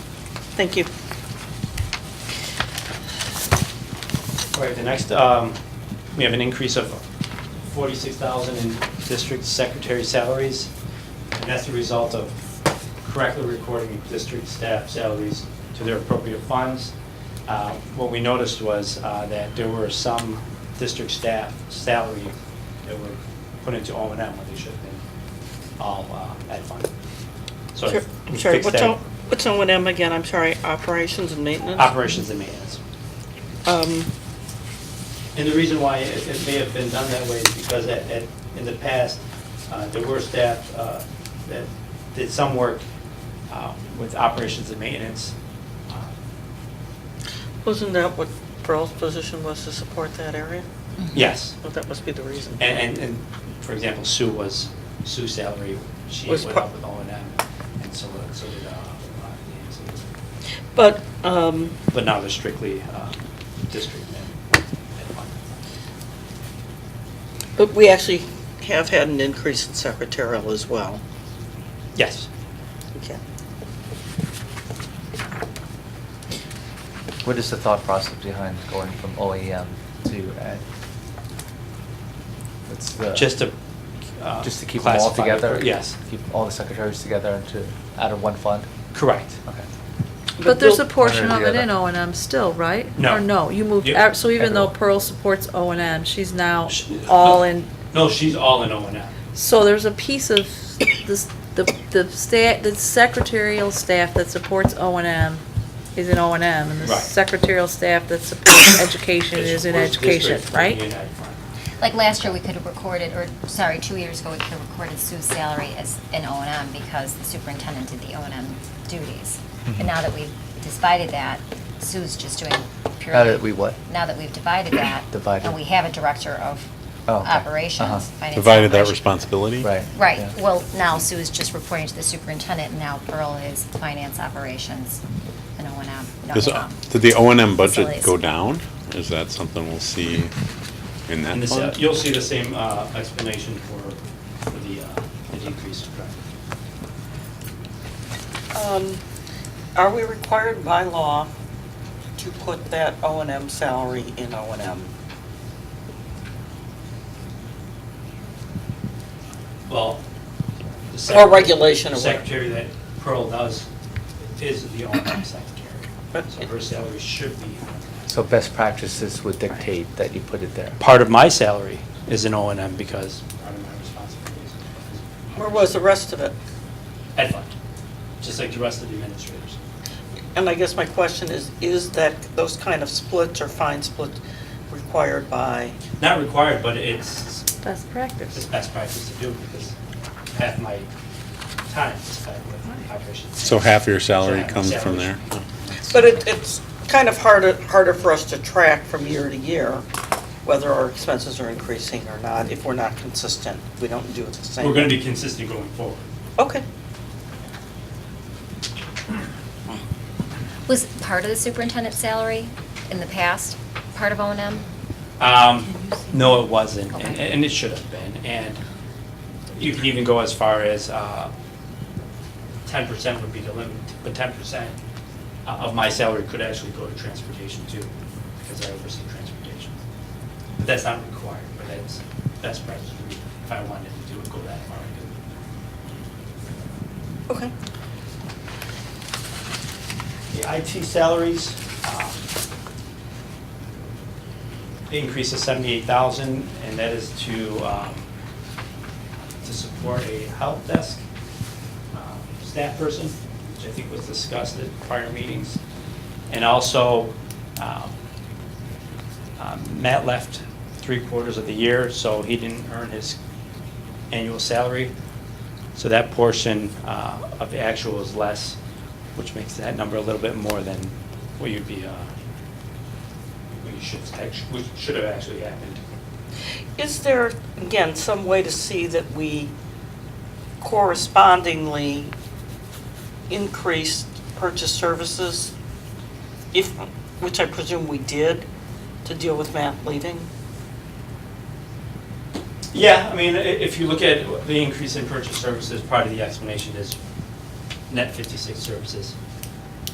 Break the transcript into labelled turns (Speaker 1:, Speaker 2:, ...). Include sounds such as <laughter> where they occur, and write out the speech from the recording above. Speaker 1: Thank you.
Speaker 2: All right, the next, um, we have an increase of 46,000 in district secretary salaries, and that's the result of correctly recording district staff salaries to their appropriate funds. Uh, What we noticed was uh, that there were some district staff salary that were put into O and M when they should have been all uh, ed fund. So
Speaker 1: Sure.
Speaker 2: we
Speaker 1: Sorry,
Speaker 2: fixed
Speaker 1: what's
Speaker 2: that.
Speaker 1: on, what's on with them again? I'm sorry, operations and maintenance?
Speaker 2: Operations and maintenance.
Speaker 1: Um,
Speaker 2: And the reason why it it may have been done that way is because at, at, in the past, uh, there were staff uh, that did some work uh, with operations and maintenance. Uh,
Speaker 1: Wasn't that what Pearl's position was to support that area?
Speaker 2: Yes,
Speaker 1: Well, that must be the reason.
Speaker 2: and, and, and for example, Sue was, Sue's salary, she
Speaker 1: Was
Speaker 2: went
Speaker 1: part-
Speaker 2: up with O and M, and so, so did, uh, uh, Nancy.
Speaker 1: But, um,
Speaker 2: but now they're strictly uh, district and, and fund.
Speaker 1: but we actually have had an increase in secretarial as well.
Speaker 2: Yes,
Speaker 1: Okay.
Speaker 3: What is the thought process behind going from OEM to ed? What's the-
Speaker 2: just to. uh,
Speaker 3: Just to keep them all
Speaker 2: classify it.
Speaker 3: together?
Speaker 2: Yes,
Speaker 3: Keep all the secretaries together into, out of one fund?
Speaker 2: correct.
Speaker 3: Okay.
Speaker 4: But there's a
Speaker 1: Bill-
Speaker 4: portion of it
Speaker 3: Under the
Speaker 4: in O
Speaker 3: other.
Speaker 4: and M still, right?
Speaker 2: No.
Speaker 4: Or no, you moved,
Speaker 2: Yeah.
Speaker 4: out- so even though
Speaker 3: Everyone.
Speaker 4: Pearl supports O and M, she's now
Speaker 2: She-
Speaker 4: all
Speaker 2: no.
Speaker 4: in,
Speaker 2: No, she's all in O and M.
Speaker 4: so there's a piece of this, the, the sta, the secretarial staff that supports O and M is in O and M, and the
Speaker 2: Right.
Speaker 4: secretarial staff that supports education is in
Speaker 2: Which
Speaker 4: education,
Speaker 2: district would be in
Speaker 4: right?
Speaker 2: ed fund?
Speaker 5: Like last year, we could have recorded, or, sorry, two years ago, we could have recorded Sue's salary as an O and M because the superintendent did the O and M duties.
Speaker 3: Mm-hmm.
Speaker 5: But now that we've divided that, Sue's just doing purely.
Speaker 3: Now that we what?
Speaker 5: Now that we've divided that.
Speaker 3: <coughs> Divided.
Speaker 5: And we have a director of
Speaker 3: Oh, okay. Uh-huh.
Speaker 5: operations. finance
Speaker 6: Divided that
Speaker 5: operations.
Speaker 6: responsibility?
Speaker 3: Right.
Speaker 5: Right,
Speaker 3: yeah.
Speaker 5: well, now Sue is just reporting to the superintendent, and now Pearl is finance operations and O and M. no,
Speaker 6: Does-
Speaker 5: um,
Speaker 6: Did the O and M budget
Speaker 5: facilities.
Speaker 6: go down? Is that something we'll see in that
Speaker 2: And this, uh,
Speaker 6: fund?
Speaker 2: you'll see the same uh, explanation for for the uh, the decrease.
Speaker 1: Um, Are we required by law to put that O and M salary in O and M?
Speaker 2: Well. the
Speaker 1: Or
Speaker 2: secretary-
Speaker 1: regulation or
Speaker 2: the
Speaker 1: whatever.
Speaker 2: Secretary that Pearl does is the O&M secretary.
Speaker 1: But-
Speaker 2: So her salary should be.
Speaker 3: So best practices would dictate that you put it there.
Speaker 2: Part of my salary is in O and M because. Part of my responsibilities.
Speaker 1: Where was the rest of it?
Speaker 2: Ed fund, just like the rest of the administrators.
Speaker 1: And I guess my question is, is that, those kind of splits or fine splits required by?
Speaker 2: Not required, but it's
Speaker 4: Best
Speaker 2: It's
Speaker 4: practice.
Speaker 2: best practice to do because half my time is spent with operations.
Speaker 6: So half your salary
Speaker 2: So half my
Speaker 6: comes from
Speaker 2: salary.
Speaker 6: there?
Speaker 1: But it, it's kind of harder, harder for us to track from year to year whether our expenses are increasing or not if we're not consistent. We don't do it the same.
Speaker 2: We're going to be consistent going forward.
Speaker 1: Okay.
Speaker 5: Was part of the superintendent's salary in the past part of O and M?
Speaker 2: Um, No, it wasn't, and-
Speaker 5: Okay.
Speaker 2: and it should have been. And you can even go as far as uh, 10% would be the limit, but 10% o- of my salary could actually go to transportation too, because I oversee transportation. But that's not required, but that's best practice. If I wanted to do it, go that far. I could.
Speaker 1: Okay.
Speaker 2: The IT salaries, um, the increase is 78,000, and that is to, um, to support a help desk um, staff person, which I think was discussed at prior meetings. And also, um, um, Matt left three quarters of the year, so he didn't earn his annual salary. So that portion uh, of the actual is less, which makes that number a little bit more than what you'd be, uh, what you should, act- what should have actually happened.
Speaker 1: Is there, again, some way to see that we correspondingly increased purchase services, if, which I presume we did, to deal with Matt leaving?
Speaker 2: Yeah, I mean, i- if you look at the increase in purchase services, part of the explanation is net 56 services